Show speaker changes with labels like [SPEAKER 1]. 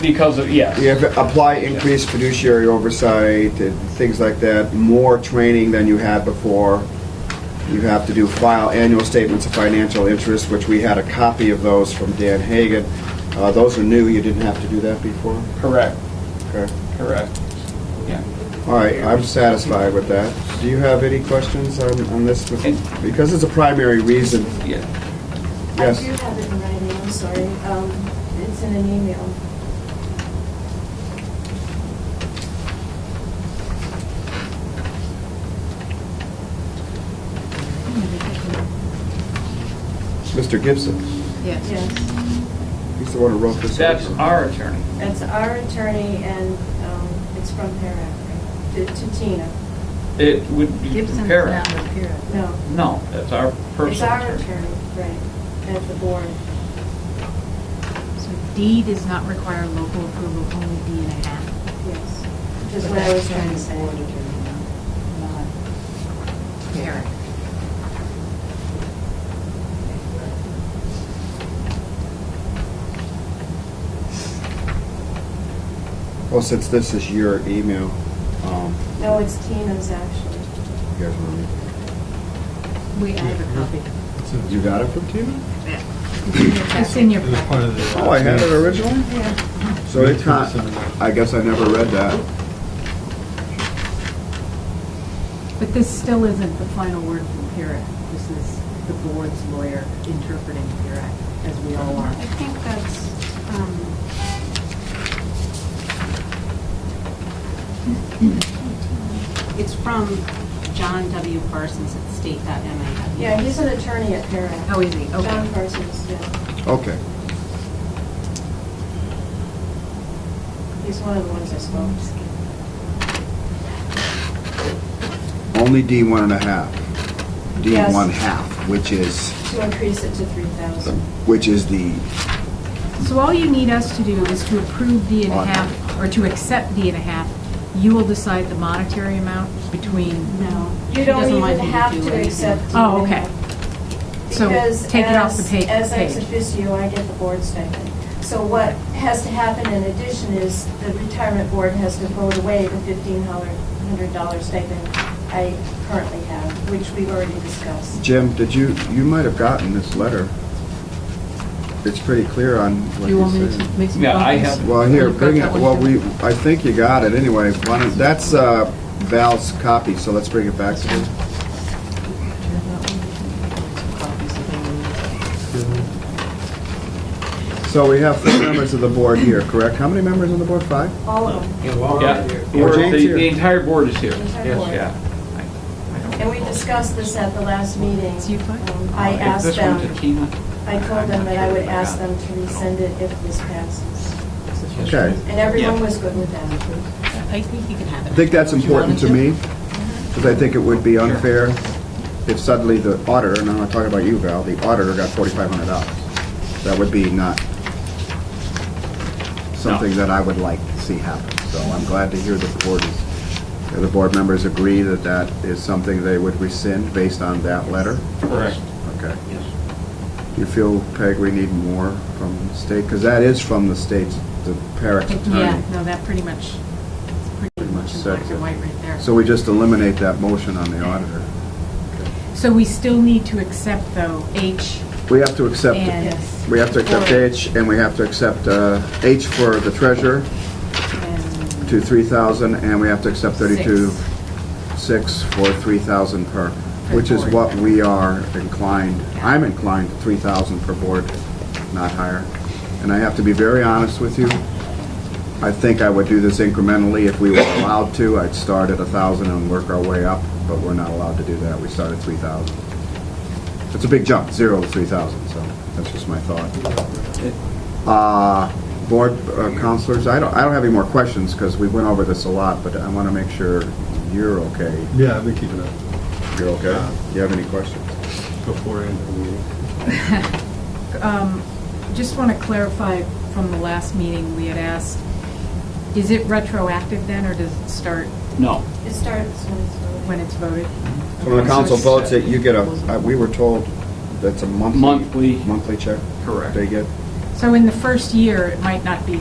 [SPEAKER 1] because of, yes.
[SPEAKER 2] You have to apply increased fiduciary oversight and things like that, more training than you had before. You have to do file annual statements of financial interest, which we had a copy of those from Dan Hagan. Uh, Those are new, you didn't have to do that before?
[SPEAKER 1] Correct,
[SPEAKER 2] Okay.
[SPEAKER 1] correct. Yeah.
[SPEAKER 2] All right, I'm satisfied with that. Do you have any questions on on this? Because it's a primary reason.
[SPEAKER 1] Yeah.
[SPEAKER 2] Yes.
[SPEAKER 3] I do have it in writing, I'm sorry. Um, It's in an email.
[SPEAKER 2] Mr. Gibson,
[SPEAKER 4] Yes.
[SPEAKER 3] Yes.
[SPEAKER 2] he's the one who wrote this.
[SPEAKER 1] That's our attorney.
[SPEAKER 3] That's our attorney, and um, it's from Parrot, to to Tina.
[SPEAKER 1] It would be
[SPEAKER 4] Gibson's
[SPEAKER 1] compare.
[SPEAKER 4] not with Pyrrhic.
[SPEAKER 3] No,
[SPEAKER 1] No, that's our
[SPEAKER 3] it's
[SPEAKER 1] personal
[SPEAKER 3] our
[SPEAKER 1] attorney.
[SPEAKER 3] attorney, right, at the board.
[SPEAKER 4] So D does not require local approval, only D and a half.
[SPEAKER 3] Yes, which is what I was trying to say.
[SPEAKER 4] Not Pyrrhic.
[SPEAKER 2] Well, since this is your email, um,
[SPEAKER 3] No, it's Tina's, actually.
[SPEAKER 2] you guys want
[SPEAKER 4] We, I have a copy.
[SPEAKER 2] to- You got it from Tina?
[SPEAKER 4] Yeah. It's in your
[SPEAKER 5] It was part
[SPEAKER 4] packet.
[SPEAKER 5] of the.
[SPEAKER 2] Oh, I had it originally? So it's not, I guess I never read that.
[SPEAKER 4] But this still isn't the final word from Pyrrhic. This is the board's lawyer interpreting Pyrrhic, as we all are.
[SPEAKER 6] I think that's, um, it's from John W. Parsons at state.ma.
[SPEAKER 3] Yeah, he's an attorney at Parrot.
[SPEAKER 4] Oh, is he? Okay.
[SPEAKER 3] John Parsons, yeah.
[SPEAKER 2] Okay.
[SPEAKER 3] He's one of the ones I spoke to.
[SPEAKER 2] Only D one and a half. D
[SPEAKER 3] Yes.
[SPEAKER 2] one half, which is,
[SPEAKER 3] To increase it to 3,000.
[SPEAKER 2] which is the,
[SPEAKER 4] So all you need us to do is to approve D and a half, or to accept D and a half. You will decide the monetary amount between,
[SPEAKER 6] No.
[SPEAKER 3] You
[SPEAKER 6] she
[SPEAKER 3] don't
[SPEAKER 6] doesn't
[SPEAKER 3] even
[SPEAKER 6] want me
[SPEAKER 3] have
[SPEAKER 6] do
[SPEAKER 3] to
[SPEAKER 6] anything.
[SPEAKER 3] accept. it.
[SPEAKER 4] Oh, okay. So
[SPEAKER 3] Because
[SPEAKER 4] take it off the
[SPEAKER 3] as-
[SPEAKER 4] pa-
[SPEAKER 3] As ex
[SPEAKER 4] page.
[SPEAKER 3] officio, I get the board stipend. So what has to happen in addition is the retirement board has to vote away the fifteen hundred dollar stipend I currently have, which we've already discussed.
[SPEAKER 2] Jim, did you, you might have gotten this letter. It's pretty clear on what
[SPEAKER 4] you
[SPEAKER 2] you
[SPEAKER 4] want me to
[SPEAKER 2] said.
[SPEAKER 4] make some copies?
[SPEAKER 1] Yeah, I have-
[SPEAKER 2] Well, here,
[SPEAKER 4] You've got
[SPEAKER 2] bring it,
[SPEAKER 4] that one
[SPEAKER 2] well,
[SPEAKER 4] too?
[SPEAKER 2] we, I think you got it anyway. Why don't- That's uh, Val's copy, so let's bring it back to him. So we have four members of the board here, correct? How many members on the board? Five?
[SPEAKER 3] All of them,
[SPEAKER 1] Yeah,
[SPEAKER 2] Or
[SPEAKER 1] We're-
[SPEAKER 2] Jane's
[SPEAKER 1] the,
[SPEAKER 2] here.
[SPEAKER 1] the entire board is here.
[SPEAKER 3] the entire board.
[SPEAKER 1] Yeah. I- I don't
[SPEAKER 3] And we
[SPEAKER 1] recall.
[SPEAKER 3] discussed this at the last meeting.
[SPEAKER 4] It's you, Frank?
[SPEAKER 3] Um, I
[SPEAKER 1] If
[SPEAKER 3] asked
[SPEAKER 1] this went to
[SPEAKER 3] them,
[SPEAKER 1] Tina,
[SPEAKER 3] I
[SPEAKER 1] I'm
[SPEAKER 3] told them
[SPEAKER 1] not
[SPEAKER 3] that
[SPEAKER 1] sure
[SPEAKER 3] I would
[SPEAKER 1] if I
[SPEAKER 3] ask
[SPEAKER 1] got
[SPEAKER 3] them to resend it if this passes.
[SPEAKER 2] Okay.
[SPEAKER 3] And everyone
[SPEAKER 1] Yeah.
[SPEAKER 3] was good with that.
[SPEAKER 6] I think you can have it.
[SPEAKER 2] I think that's important to me, because I think it would be unfair if suddenly the auditor, and I'm not talking about you, Val, the auditor got forty-five hundred dollars. That would be not something that I would like to see happen. So I'm glad to hear the board, is- that the board members agree that that is something they would rescind based on that letter.
[SPEAKER 1] Correct.
[SPEAKER 2] Okay. Do you feel, Peg, we need more from the state? Because that is from the state's, the Parrot attorney.
[SPEAKER 4] Yeah, no, that pretty much, it's pretty
[SPEAKER 2] Pretty much
[SPEAKER 4] much in black
[SPEAKER 2] sets it.
[SPEAKER 4] and white right there.
[SPEAKER 2] So we just eliminate that motion on the auditor.
[SPEAKER 4] So we still need to accept, though, H
[SPEAKER 2] We have to accept,
[SPEAKER 4] and.
[SPEAKER 3] Yes.
[SPEAKER 2] we have to accept
[SPEAKER 4] Or-
[SPEAKER 2] H, and we have to accept uh, H for the treasurer
[SPEAKER 4] and
[SPEAKER 2] to 3,000, and we have to accept 32,
[SPEAKER 4] six.
[SPEAKER 2] 6 for 3,000 per,
[SPEAKER 4] Per
[SPEAKER 2] which is
[SPEAKER 4] board.
[SPEAKER 2] what we are inclined, I'm inclined to 3,000 per board, not higher. And I have to be very honest with you, I think I would do this incrementally if we were allowed to. I'd start at 1,000 and work our way up, but we're not allowed to do that. We start at 3,000. It's a big jump, zero to 3,000, so that's just my thought. Uh, Board uh, counselors, I don't, I don't have any more questions because we went over this a lot, but I want to make sure you're okay.
[SPEAKER 5] Yeah, I've been keeping up
[SPEAKER 2] You're okay? Do you have any questions?
[SPEAKER 5] before and after the meeting.
[SPEAKER 4] Um, Just want to clarify from the last meeting, we had asked, is it retroactive then, or does it start
[SPEAKER 1] No.
[SPEAKER 3] It starts when it's voted.
[SPEAKER 4] when it's voted?
[SPEAKER 2] So When the council votes it, you get a, uh, we were told that's a monthly.
[SPEAKER 1] Monthly.
[SPEAKER 2] Monthly check
[SPEAKER 1] Correct.
[SPEAKER 2] they get.
[SPEAKER 4] So in the first year, it might not be